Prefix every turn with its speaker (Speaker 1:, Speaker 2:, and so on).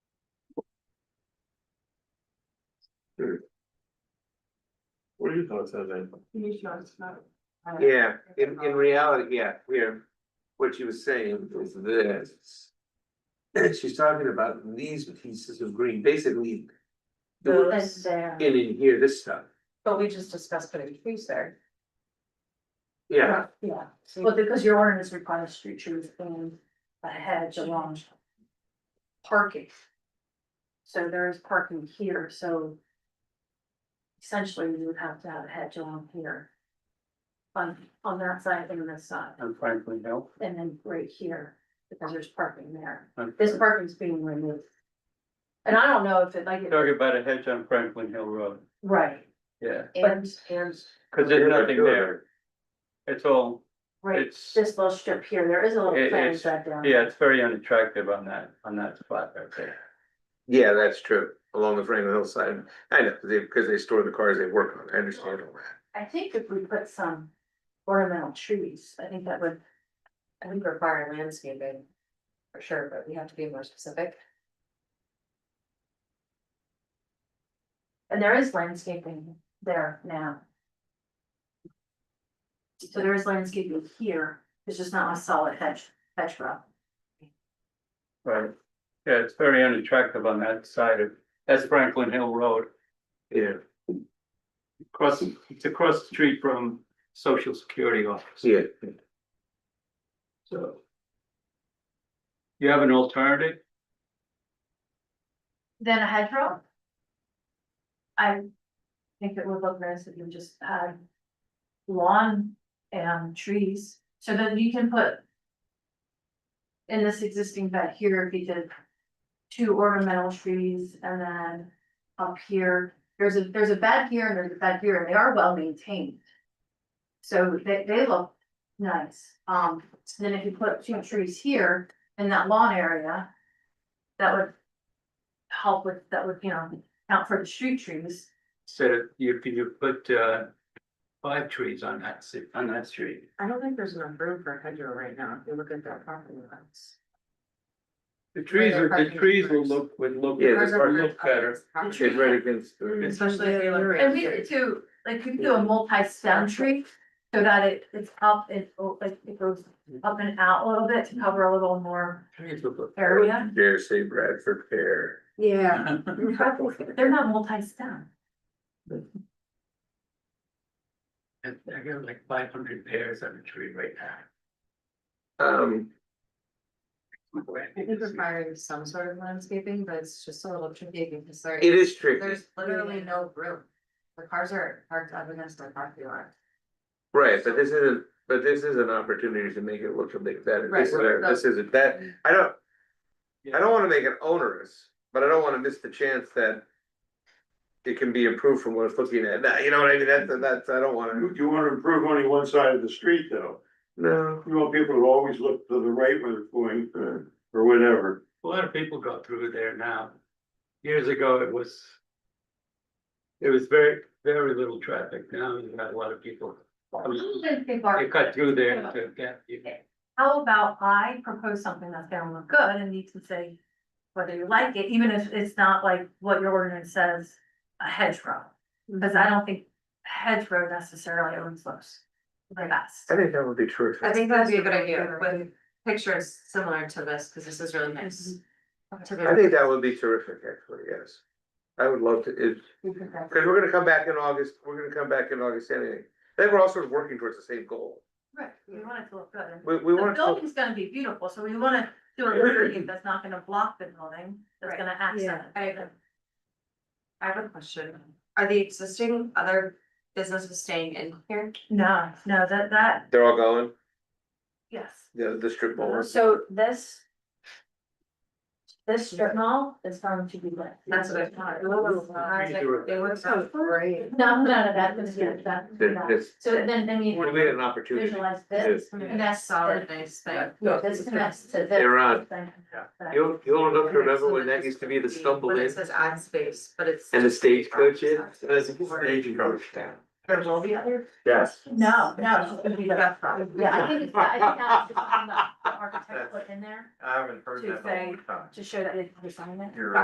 Speaker 1: your thoughts on that?
Speaker 2: Yeah, in, in reality, yeah, we're, what she was saying is this. She's talking about these pieces of green, basically.
Speaker 3: Those there,
Speaker 2: In in here, this stuff,
Speaker 4: But we just discussed putting trees there.
Speaker 2: yeah,
Speaker 3: yeah,
Speaker 4: Mm.
Speaker 3: but because your ordinance requires street trees and a hedge along. Parking. So there is parking here, so. Essentially, you would have to have a hedge along here. On, on that side and this side,
Speaker 5: on Franklin Hill.
Speaker 3: and then right here, because there's parking there,
Speaker 5: on-
Speaker 3: this parking's being removed. And I don't know if it like,
Speaker 5: Talking about a hedge on Franklin Hill Road,
Speaker 3: right,
Speaker 5: yeah,
Speaker 3: And-
Speaker 4: and.
Speaker 5: cause there's nothing there, it's all,
Speaker 3: right,
Speaker 5: it's, yeah,
Speaker 3: this little strip here, there is a little
Speaker 5: It-
Speaker 3: plan
Speaker 5: it's-
Speaker 3: set down.
Speaker 5: it's very unattractive on that, on that spot right there.
Speaker 2: yeah, that's true, along the Franklin hillside. I know, they, because they store the cars they work on, I understand all that.
Speaker 3: I think if we put some ornamental trees, I think that would,
Speaker 4: I think require landscaping, for sure, but we have to be more specific.
Speaker 3: and there is landscaping there now. So there is landscaping here, it's just not a solid hedge, hedge row.
Speaker 5: Right, yeah, it's very unattractive on that side of, that's Franklin Hill Road,
Speaker 2: Yeah,
Speaker 1: Across, it's across the street from social security office,
Speaker 2: yeah,
Speaker 1: so.
Speaker 5: you have an alternative?
Speaker 3: Then a hedge row? I think it would look nice if you just had lawn and trees, so then you can put. In this existing bed here, if you did two ornamental trees and then up here, there's a, there's a bed here and there's a bed here, and they are well maintained. So they, they look nice, um, then if you put two trees here in that lawn area, that would help with, that would, you know, count for the street trees.
Speaker 5: Instead of, you, could you put, uh, five trees on that, si- on that street?
Speaker 4: I don't think there's enough room for a hedgerow right now, if you look at that property lines.
Speaker 5: The trees are, the trees will look, would look,
Speaker 2: Yeah,
Speaker 5: would
Speaker 2: the park-
Speaker 5: look better,
Speaker 2: it's right against.
Speaker 4: Especially if you look.
Speaker 3: And we did too, like we could do a multi-stem tree so that it, it's up, and o- like it goes up and out a little bit to cover a little more
Speaker 5: trees would look.
Speaker 3: area.
Speaker 2: Dare say Bradford Fair.
Speaker 4: Yeah.
Speaker 3: They're not multi-stem.
Speaker 5: I I got like five hundred pairs on a tree right now.
Speaker 2: Um,
Speaker 4: I think requires some sort of landscaping, but it's just a little tricky because there.
Speaker 2: it is tricky,
Speaker 4: There's literally no room. The cars are parked up against the property line.
Speaker 2: right, but this isn't, but this is an opportunity to make it look a bit better,
Speaker 4: Right,
Speaker 2: this is, a-
Speaker 4: right.
Speaker 2: this isn't, that, I don't. I don't wanna make it onerous, but I don't wanna miss the chance that. It can be improved from what it's looking at, now. you know what I mean, that's, that's, I don't wanna,
Speaker 1: You wanna improve only one side of the street, though,
Speaker 2: no,
Speaker 1: you want people to always look to the right when they're going, uh, or whatever.
Speaker 5: A lot of people go through there now. Years ago, it was. It was very, very little traffic. Now you got a lot of people. You cut through there to get, you-
Speaker 3: How about I propose something that's gonna look good and you can say whether you like it, even if it's not like what your ordinance says, a hedgerow. Because I don't think hedgerow necessarily always looks the best.
Speaker 2: I think that would be true.
Speaker 4: I think that'd be a good idea with pictures similar to this, because this is really nice. To
Speaker 2: I
Speaker 4: the-
Speaker 2: think that would be terrific, actually, yes. I would love to, it, cause we're gonna come back in August, we're gonna come back in August anyway, then we're all sort of working towards the same goal.
Speaker 3: Right, we want it to look good. and-
Speaker 2: We, we
Speaker 3: The
Speaker 2: want to,
Speaker 3: building's gonna be beautiful, so we wanna do a landscape that's not gonna block the building, that's
Speaker 4: Right,
Speaker 3: gonna accent.
Speaker 4: I
Speaker 3: it.
Speaker 4: agree. I have a question. Are the existing other businesses staying in here?
Speaker 3: No, no, that, that,
Speaker 2: they're all going,
Speaker 3: yes.
Speaker 2: the, the strip mall.
Speaker 3: So this. This strip mall is going to be lit.
Speaker 4: That's what I thought. I was like, They look
Speaker 3: Oh,
Speaker 4: so great.
Speaker 3: No, no, no, that was, yeah, that,
Speaker 2: That-
Speaker 3: that.
Speaker 2: that's-
Speaker 3: So then, then you
Speaker 2: We had an opportunity.
Speaker 3: visualize this.
Speaker 4: And that's solid, nice thing.
Speaker 3: Yeah, this connects to this.
Speaker 2: They're on.
Speaker 3: thing.
Speaker 2: You'll, you'll enough to remember when that used to be the stumble
Speaker 4: When
Speaker 2: in
Speaker 4: it says ad space, but it's.
Speaker 2: and the stagecoach in, so that's a stagecoach down.
Speaker 4: There will be other.
Speaker 2: Yes.
Speaker 3: No, no, it's gonna be the-
Speaker 4: That's probably.
Speaker 3: yeah, I think it's, I think that's the the architect put in there
Speaker 2: I haven't
Speaker 3: to say, to show that it's designed it.
Speaker 2: You're